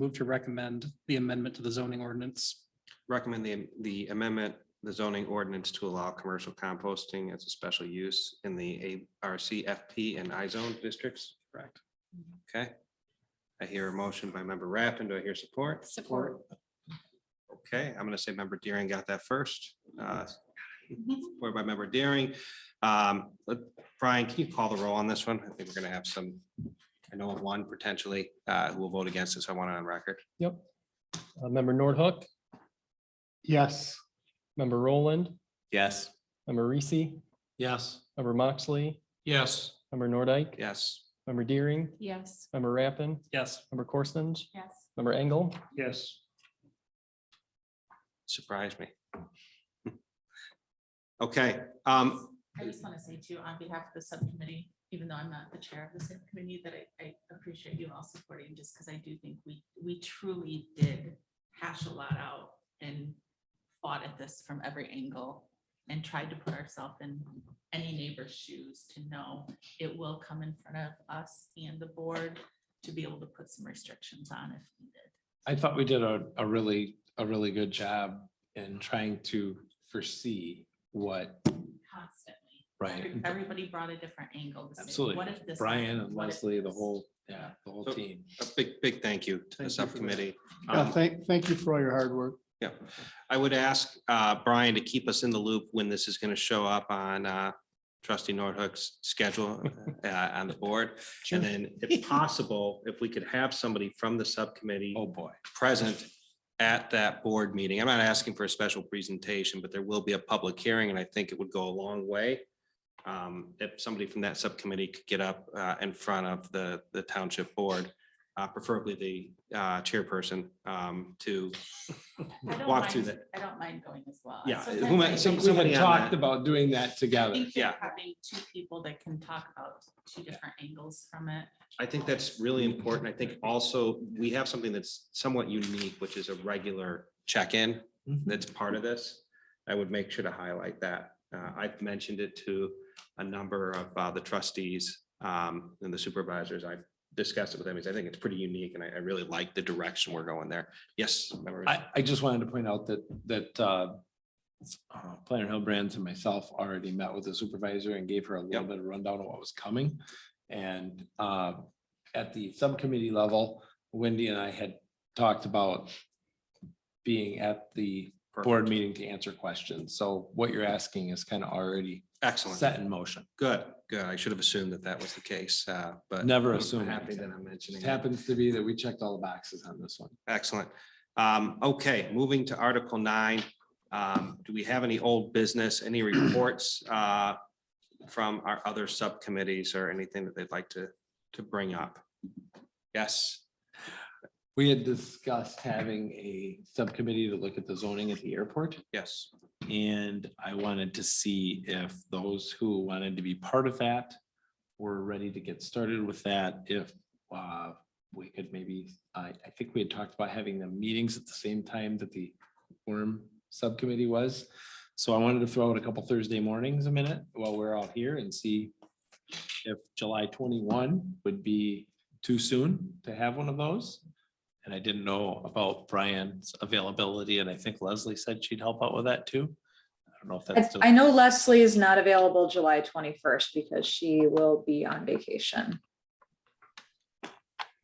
Move to recommend the amendment to the zoning ordinance. Recommend the, the amendment, the zoning ordinance to allow commercial composting as a special use in the ARC FP and I zone districts. Correct. Okay. I hear a motion by member Rappin. Do I hear support? Support. Okay, I'm gonna say member Deering got that first. Uh, Support by member Deering. Um, but Brian, can you call the roll on this one? I think we're gonna have some, I know of one potentially, uh, who will vote against this. I want it on record. Yep. Uh, Member Nordhook, yes, member Roland, yes. member Reese, Yes. member Moxley. Yes. Member Nordike, Yes. member Deering, Yes. member Rappin, Yes. member Corstens, Yes. member Engel, Yes. Surprise me. Okay, um, I just want to say too, on behalf of the subcommittee, even though I'm not the chair of the subcommittee, that I, I appreciate you all supporting, just because I do think we, we truly did hash a lot out and fought at this from every angle and tried to put ourselves in any neighbor's shoes to know it will come in front of us and the board to be able to put some restrictions on if needed. I thought we did a, a really, a really good job in trying to foresee what, Constantly. right? Every- Everybody brought a different angle. to say, Absolutely. What if this? Brian and What if Leslie, the this? whole, yeah, the whole So- team. a big, big thank you to Thank you for the this. subcommittee. Yeah, Um, thank, thank you for all your hard work. I would ask uh, Brian to keep us in the loop when this is going to show up on uh, trustee Nordhook's schedule uh, on the board. And then if possible, if we could have somebody from the subcommittee Oh, boy. present at that board meeting. I'm not asking for a special presentation, but there will be a public hearing and I think it would go a long way. um, If somebody from that subcommittee could get up uh, in front of the, the township board, uh, preferably the uh, chairperson um, to I don't walk through mind- that. I don't mind going as well. Yeah, Sometimes who am I- I some- think- somebody We on talked that. about doing that I together. think that Yeah. having two people that can talk about two different angles from it. I think that's really important. I think also we have something that's somewhat unique, which is a regular check-in Mm-hmm. that's part of this. I would make sure to highlight that. Uh, I've mentioned it to a number of uh, the trustees um, and the supervisors. I've discussed it with them. because I think it's pretty unique and I, I really like the direction we're going there. Yes. Member- I, I just wanted to point out that, that uh, uh, Planner Hillbrands and myself already met with the supervisor and gave her a little Yep. bit of rundown of what was coming. And uh, at the subcommittee level, Wendy and I had talked about being at the board meeting to answer questions. So what you're asking is kind of already Excellent. set in motion. Good, good. I should have assumed that that was the case, uh, but. Never I'm assume Happy that anything. I'm mentioning. It it. happens to be that we checked all the boxes on this one. Excellent. Um, okay, moving to Article nine. Um, do we have any old business, any reports, uh, from our other subcommittees or anything that they'd like to, to bring up? Yes, We had discussed having a subcommittee to look at the zoning at the airport. yes. And I wanted to see if those who wanted to be part of that were ready to get started with that, if uh, we could maybe, I, I think we had talked about having the meetings at the same time that the worm subcommittee was. So I wanted to throw out a couple Thursday mornings a minute while we're out here and see if July twenty-one would be too soon to have one of those. And I didn't know about Brian's availability, and I think Leslie said she'd help out with that too. I don't know if that's. I- still- I know Leslie is not available July twenty-first because she will be on vacation.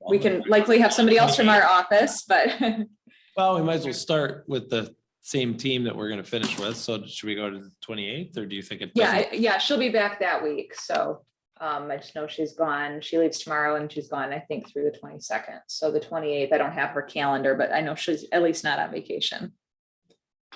We can likely have somebody else from our office, but Well, we might as well start with the same team that we're gonna finish with. So should we go to the twenty-eighth, or do you think it? yeah, doesn't- I- yeah, she'll be back that week, so. Um, I just know she's gone. She leaves tomorrow and she's gone, I think, through the twenty-second. So the twenty-eighth, I don't have her calendar, but I know she's at least not on vacation.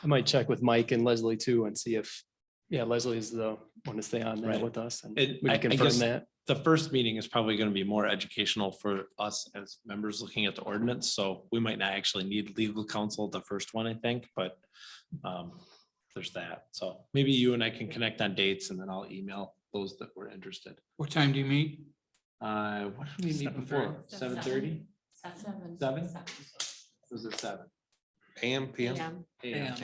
I might check with Mike and Leslie too and see if, yeah, Leslie is the one to stay on Right. that with us and It- we I- I can confirm guess- that. The first meeting is probably gonna be more educational for us as members looking at the ordinance, so we might not actually need legal counsel at the first one, I think, but. um, There's that, so maybe you and I can connect on dates and then I'll email those that were interested. What time do you meet? Uh, what did we meet before? Seven thirty? Seven. Seven? Was it seven? AM, PM? AM.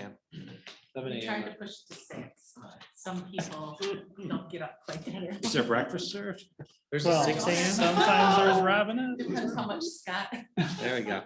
Seven We tried to AM. push to six. Some people don't get up quite that. Is there breakfast served? Well, Sometimes there's Robin. Depends how much Scott. There we go.